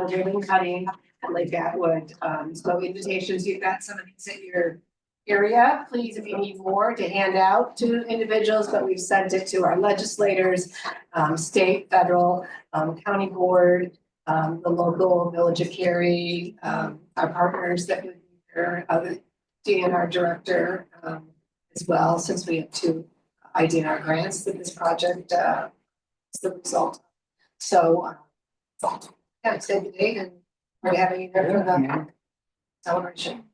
building cutting and Lake Atwood. Um, so invitations, you've got some of these at your area. Please, if you need more to hand out to individuals, but we've sent it to our legislators, um, state, federal, um, county board, um, the local village of Cary, um, our partners that we, uh, or other DNR director, um, as well, since we have two IDNR grants that this project, uh, is the result. So, uh, yeah, save the date and we're having you there for the Yeah. celebration.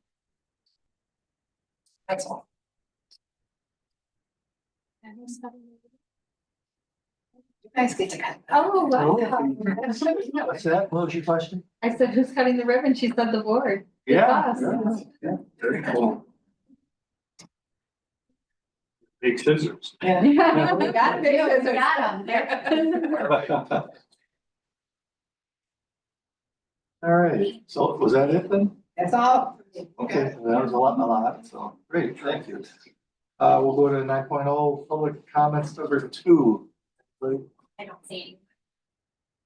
That's all. You guys get to cut. Oh, wow. No, So that, what was your question? I said, who's cutting the ribbon? She said the board. It's Oh, us. yeah, yeah, Very cool. Big scissors. Yeah. We We got got it. it. We got 'em. They're- All All right, so was that it then? That's all. Okay, so that was a lot, a lot, so, great, thank you. Uh, we'll go to nine oh, public comments number two. Like, I don't see.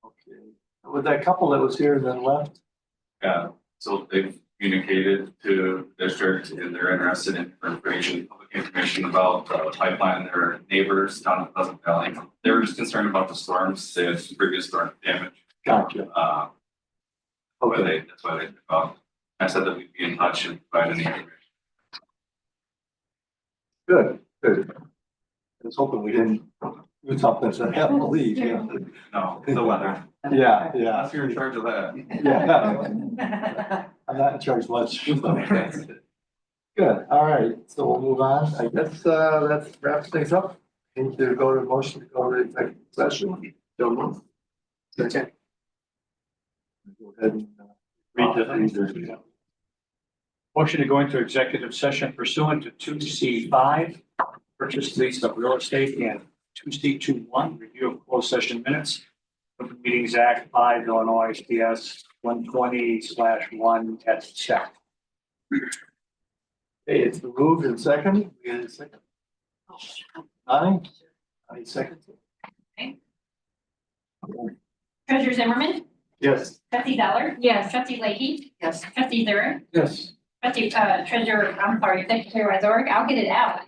okay, With that couple that was here and then left, Yeah, so they've communicated to district and they're interested in information, public information about uh, pipeline, their neighbors down in Pleasant Valley. They were just concerned about the storms, they had some previous storm damage, gotcha, uh, but okay, they, that's why they, took off. I said that we'd be in touch and provide any information. good, good. I was hoping we didn't do something, so I have to leave, yeah, No, the weather, yeah, yeah, that's you're in charge of that. yeah. I'm not in charge much. Good, all right, so we'll move on. I guess uh that wraps things up. Need to go to motion to go to executive session. Don't move. Second. Go ahead and. uh, Read the- read the- Motion to go into executive session pursuant to two C five, purchase lease of real estate and two C two one, review of closed session minutes of the Meetings Act five Illinois SPS one twenty slash one at check. Hey, it's moved and second. We had a second. Aye. Aye, second. Treasurer Zimmerman, Yes. trustee Zeller, Yes. trustee Leahy, Yes. trustee Zurich, Yes. trustee, uh, treasurer, I'm sorry, secretary Wazorek, I'll get it out.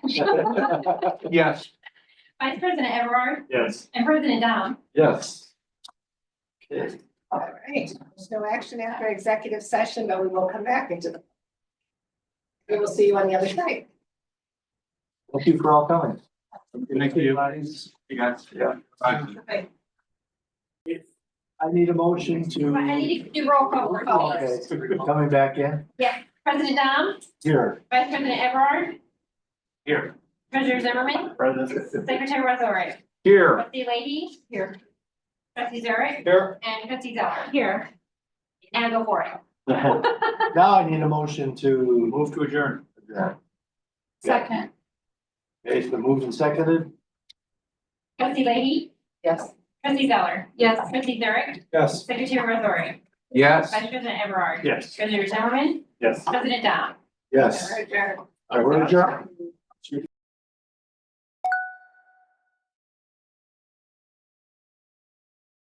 Yes. Vice President Everard Yes. and President Dom. Yes. Okay, All right, there's no action after executive session, but we will come back into the. We will see you on the other side. thank you for all coming. Thank you. You guys. Yeah. Bye. I need a motion to. I need to do roll call. roll call. Okay, coming back in President Dom, here. Vice President Everard, Here. treasurer Zimmerman, secretary Wazorek, Here. trustee Leahy. Here. Trustee Zurich Here. and trustee Zeller. Here. And go for it. Now I need a motion to. Move to adjourn. adjourn. Second. Okay, it's been moved and seconded. Trustee Leahy, Yes. trustee Zeller, Yes. trustee Zurich, Yes. secretary Wazorek, Yes. vice president Everard, Yes. treasurer Zimmerman, Yes. president Dom. Yes. All right, we're adjourned.